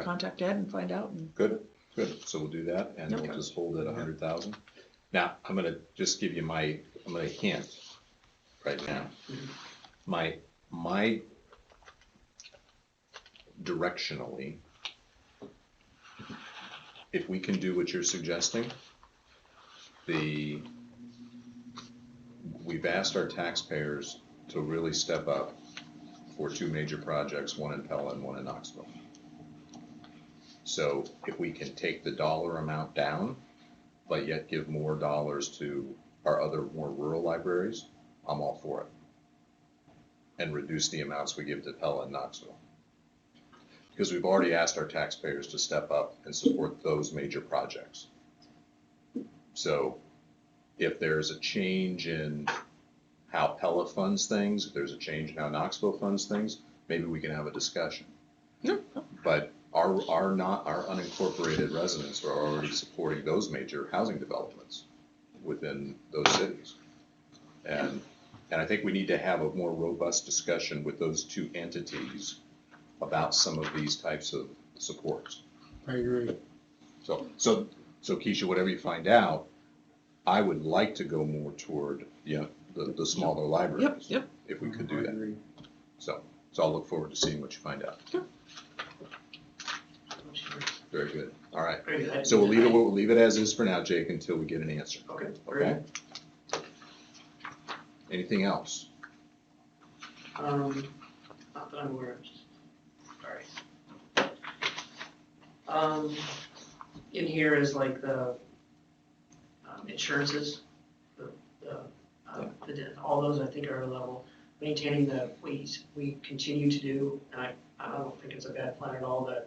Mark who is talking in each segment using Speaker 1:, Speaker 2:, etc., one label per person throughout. Speaker 1: contact Ed and find out and
Speaker 2: Good, good, so we'll do that, and we'll
Speaker 1: Okay.
Speaker 2: just hold it a hundred thousand. Now, I'm gonna just give you my, I'm gonna hint right now. My, my directionally, if we can do what you're suggesting, the, we've asked our taxpayers to really step up for two major projects, one in Pella and one in Knoxville. So if we can take the dollar amount down, but yet give more dollars to our other more rural libraries, I'm all for it. And reduce the amounts we give to Pella and Knoxville. Because we've already asked our taxpayers to step up and support those major projects. So if there's a change in how Pella funds things, if there's a change in how Knoxville funds things, maybe we can have a discussion.
Speaker 1: No,
Speaker 2: But our, our not, our unincorporated residents are already supporting those major housing developments within those cities. And, and I think we need to have a more robust discussion with those two entities about some of these types of supports.
Speaker 3: I agree.
Speaker 2: So, so, so Keisha, whatever you find out, I would like to go more toward, you know, the, the smaller
Speaker 1: yep,
Speaker 2: libraries.
Speaker 1: yep,
Speaker 2: If we could do
Speaker 3: I
Speaker 2: that.
Speaker 3: agree.
Speaker 2: So, so I'll look forward to seeing what you find out. Very good. All right. So we'll leave it, we'll leave it as is for now, Jake, until we get an answer,
Speaker 4: Okay,
Speaker 2: okay? Anything else?
Speaker 4: Um, not that I'm aware of, just- sorry. Um, in here is like the, um, insurances, the, the, uh, the, di- all those I think are a level. Maintaining the, we, we continue to do, and I, I don't think it's a bad plan at all, the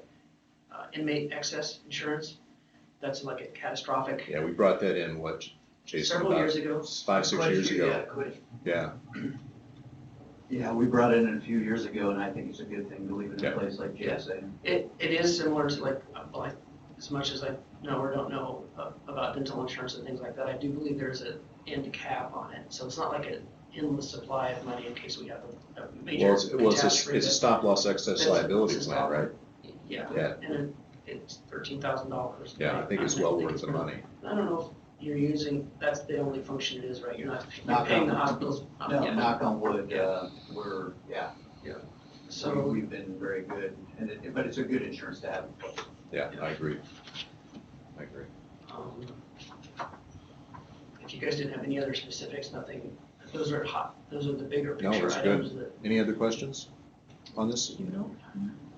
Speaker 4: uh, inmate excess insurance. That's like a catastrophic,
Speaker 2: Yeah, we brought that in, what, Jason,
Speaker 4: several years
Speaker 2: about
Speaker 4: ago.
Speaker 2: five, six years ago, yeah.
Speaker 5: Yeah, we brought it in a few years ago, and I think it's a good thing to leave it
Speaker 2: Yeah.
Speaker 5: in place like Jay's saying.
Speaker 4: It, it is similar to like, uh, like, as much as I know or don't know uh, about dental insurance and things like that, I do believe there's an end cap on it. So it's not like an endless supply of money in case we have a- a major
Speaker 2: Well, it's, well, it's a,
Speaker 4: catastrophe.
Speaker 2: it's a stop loss excess
Speaker 4: That's-
Speaker 2: liability
Speaker 4: that's
Speaker 2: plan,
Speaker 4: all.
Speaker 2: right?
Speaker 4: that- Yeah,
Speaker 2: Yeah.
Speaker 4: and it- it's thirteen thousand dollars.
Speaker 2: Yeah, I think it's well worth the money.
Speaker 4: I don't know if you're using, that's the only function it is, right? You're not
Speaker 5: Not
Speaker 4: paying the
Speaker 5: that one.
Speaker 4: hospitals. uh,
Speaker 5: No,
Speaker 4: yeah.
Speaker 5: knock on wood, uh, we're, yeah, so
Speaker 4: So,
Speaker 5: we've been very good, and it, but it's a good insurance to have. in place.
Speaker 2: Yeah, I agree. I agree.
Speaker 4: um, if you guys didn't have any other specifics, nothing, those are hot, those are the bigger
Speaker 2: No,
Speaker 4: picture
Speaker 2: that's good.
Speaker 4: items that
Speaker 2: Any other questions on this?
Speaker 1: you know.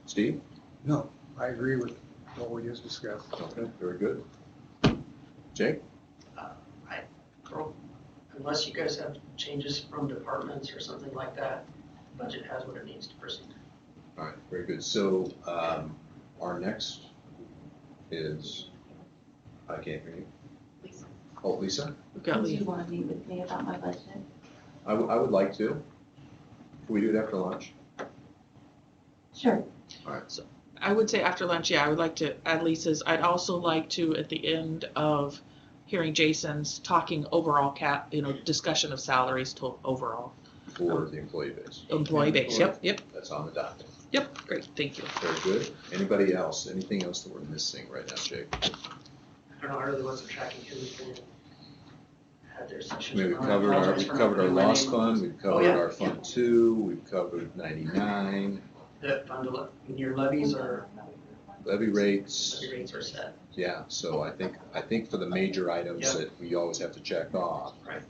Speaker 2: Steve?
Speaker 3: No, I agree with what we just discussed.
Speaker 2: Okay, very good. Jake?
Speaker 4: Well, Unless you guys have changes from departments or something like that, budget has what it needs to proceed.
Speaker 2: All right, very good. So, um, our next is, I can't hear you.
Speaker 6: Lisa,
Speaker 2: Oh, Lisa?
Speaker 1: We've got
Speaker 6: do you
Speaker 1: Lee.
Speaker 6: want to meet with me about my budget?
Speaker 2: I, w- I would like to. Can we do it after lunch?
Speaker 6: Sure.
Speaker 1: I would say after lunch, yeah, I would like to add Lisa's. I'd also like to, at the end of hearing Jason's talking overall cap, you know, discussion of salaries to overall
Speaker 2: For the employee base.
Speaker 1: employee base. Yep, yep,
Speaker 2: That's on the docket.
Speaker 1: yep. Great, thank you.
Speaker 2: Very good. Anybody else? Anything else that we're missing right now, Jake?
Speaker 4: I don't know, I really wasn't tracking who's been, had their
Speaker 2: I
Speaker 4: sessions.
Speaker 2: mean,
Speaker 4: or
Speaker 2: we've
Speaker 4: not. I
Speaker 2: covered our, we've covered
Speaker 4: apologize for not
Speaker 2: our
Speaker 4: putting my
Speaker 2: loss
Speaker 4: name
Speaker 2: fund, we've covered
Speaker 4: Oh, yeah.
Speaker 2: our fund two, we've covered ninety-nine,
Speaker 4: on The fund, ele- and your levies are,
Speaker 2: levy rates.
Speaker 4: levy rates are set,
Speaker 2: Yeah, so I think, I think for the major items
Speaker 4: Yeah.
Speaker 2: that we always have to check off,
Speaker 4: right?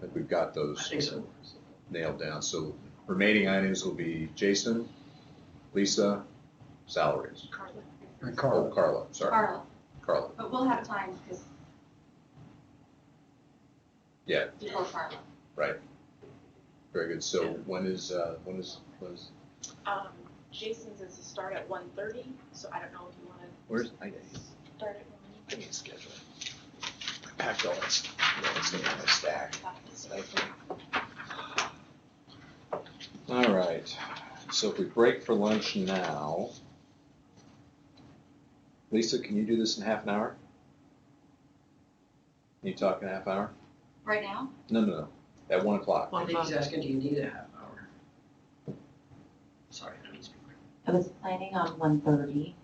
Speaker 2: that we've got
Speaker 4: I
Speaker 2: those
Speaker 4: think so.
Speaker 2: nailed down. So remaining items will be Jason, Lisa, salaries.
Speaker 7: Um,
Speaker 3: And
Speaker 2: Oh,
Speaker 3: Carl,
Speaker 2: Carla, sorry,
Speaker 6: Carl,
Speaker 2: Carla.
Speaker 6: but we'll have time because.
Speaker 2: Yeah.
Speaker 6: Before Carla.
Speaker 2: Very good. So when is, uh, when is, when is,
Speaker 7: Um, Jason's is to start at one thirty, so I don't know if you wanna
Speaker 2: where's, I,
Speaker 7: start at one.
Speaker 8: Give me a schedule. I packed all that stuff, all that stuff in my stack.
Speaker 2: all right. So if we break for lunch now, Lisa, can you do this in half an hour? Can you talk in half hour?
Speaker 6: Right now?
Speaker 2: No, no, no, at one o'clock.
Speaker 4: I think he's asking, do you need a half hour? Sorry, I don't mean to speak.
Speaker 6: I was planning on one thirty.